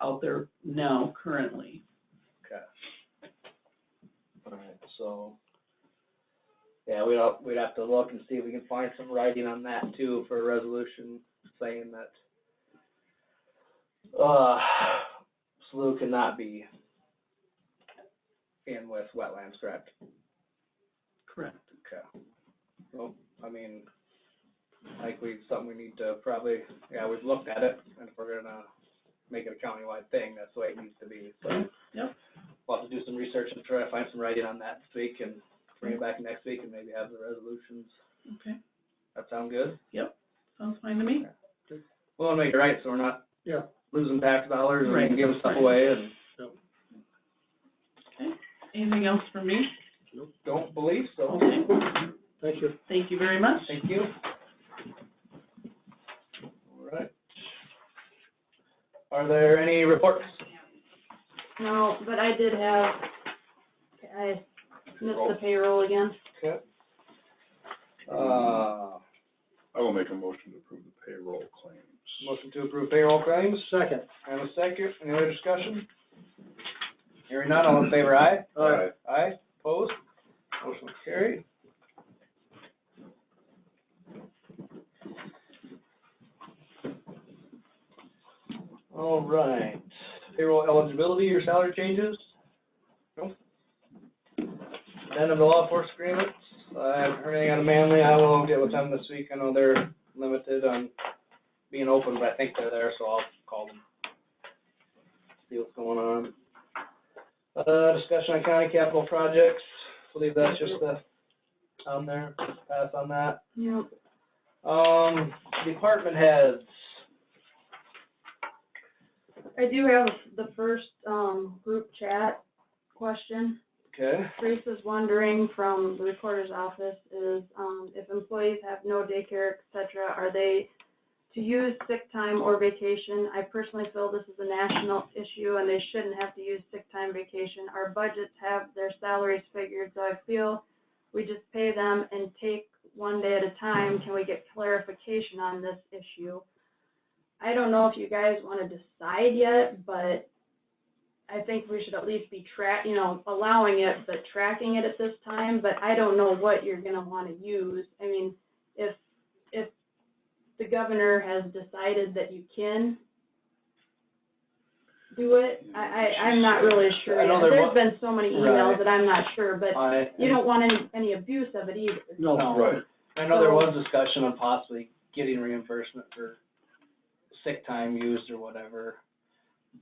out there now currently. Okay. Alright, so. Yeah, we'd have, we'd have to look and see if we can find some writing on that too for a resolution saying that. Uh, SLU cannot be in with wetlands, correct? Correct. Okay. Well, I mean, like we, something we need to probably, yeah, we've looked at it, and if we're gonna make it a countywide thing, that's the way it needs to be, so. Yep. We'll have to do some research and try to find some writing on that this week and bring it back next week and maybe have the resolutions. Okay, That sound good? sounds fine to me. We wanna make it right, so we're not. Yeah. Losing tax dollars Right. and giving stuff away and. Anything else from me? Don't believe so. Okay, Thank you. thank you very much. Thank you. Alright. Are there any reports? No, but I did have, I missed the payroll again. Okay. Uh, I will make a motion to approve the payroll claims. motion to approve payroll claims, Second. and a second, any other discussion? Hearing none, all in favor, aye? Aye. Aye, opposed, motion carried. All right, payroll eligibility or salary changes? Nope. Then of the law enforcement agreements, I haven't heard anything out of Manly, I will get with them this week, I know they're limited on being open, but I think they're there, so I'll call them. See what's going on. Uh, discussion on county capital projects, believe that's just the, on there, pass on that. Yep. Um, department heads, I do have the first, um, group chat question. okay, Trace is wondering from the recorder's office is, um, if employees have no daycare, et cetera, are they to use sick time or vacation? I personally feel this is a national issue and they shouldn't have to use sick time vacation. Our budgets have their salaries figured, so I feel we just pay them and take one day at a time. Can we get clarification on this issue? I don't know if you guys wanna decide yet, but I think we should at least be track, you know, allowing it, but tracking it at this time, but I don't know what you're gonna wanna use. I mean, if, if the governor has decided that you can do it, I, I, I'm not really sure. I know there There's wa- been so many Right. emails that I'm not sure, but I. you don't want any, any abuse of it either. No. No. Right, I know there was discussion on possibly getting reimbursement for sick time used or whatever,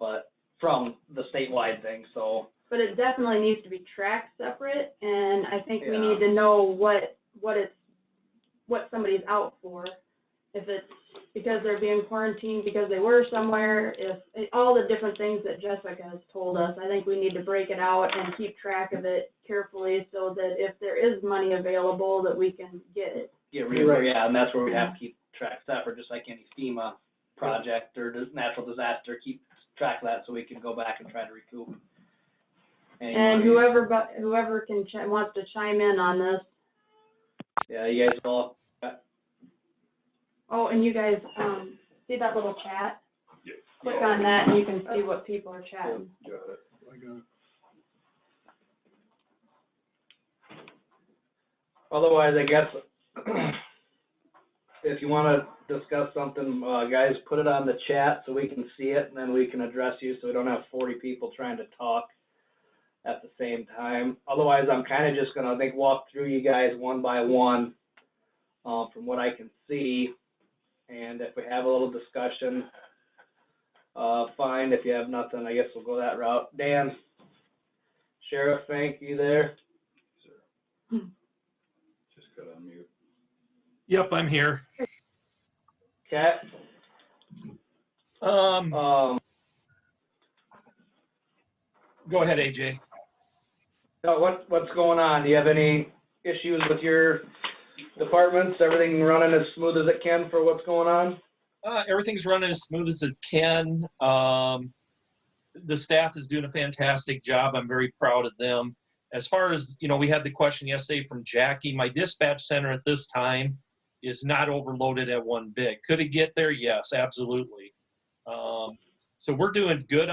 but from the statewide thing, so, But it definitely needs to be tracked separate, and I think we Yeah. need to know what, what it's, what somebody's out for. If it's because they're being quarantined, because they were somewhere, if, eh, all the different things that Jessica has told us, I think we need to break it out and keep track of it carefully so that if there is money available, that we can get it. get Right. reimbursed, yeah, and that's where we Mm-hmm. have to keep track separate, just like any FEMA project or dis- natural disaster, keep track of that so we can go back and try to recoup. any And money. whoever, bu- whoever can, chi- wants to chime in on this, Yeah, you guys all, oh, and you guys, um, see that little chat? Yeah. Click on that and you can see what people are chatting. got it. I got it. otherwise, I guess, if you wanna discuss something, uh, guys, put it on the chat so we can see it, and then we can address you, so we don't have forty people trying to talk at the same time. Otherwise, I'm kinda just gonna, I think, walk through you guys one by one, uh, from what I can see. And if we have a little discussion, uh, fine, if you have nothing, I guess we'll go that route. Dan, Sheriff, thank you there. Sure. Just got on mute. Yep, I'm here. Cat, Um, um, go ahead, AJ. Now, what, what's going on? Do you have any issues with your departments? Everything running as smooth as it can for what's going on? Uh, everything's running as smooth as it can. Um, the staff is doing a fantastic job. I'm very proud of them. As far as, you know, we had the question yesterday from Jackie. My dispatch center at this time is not overloaded at one bit. Could it get there? Yes, absolutely. Um, so we're doing good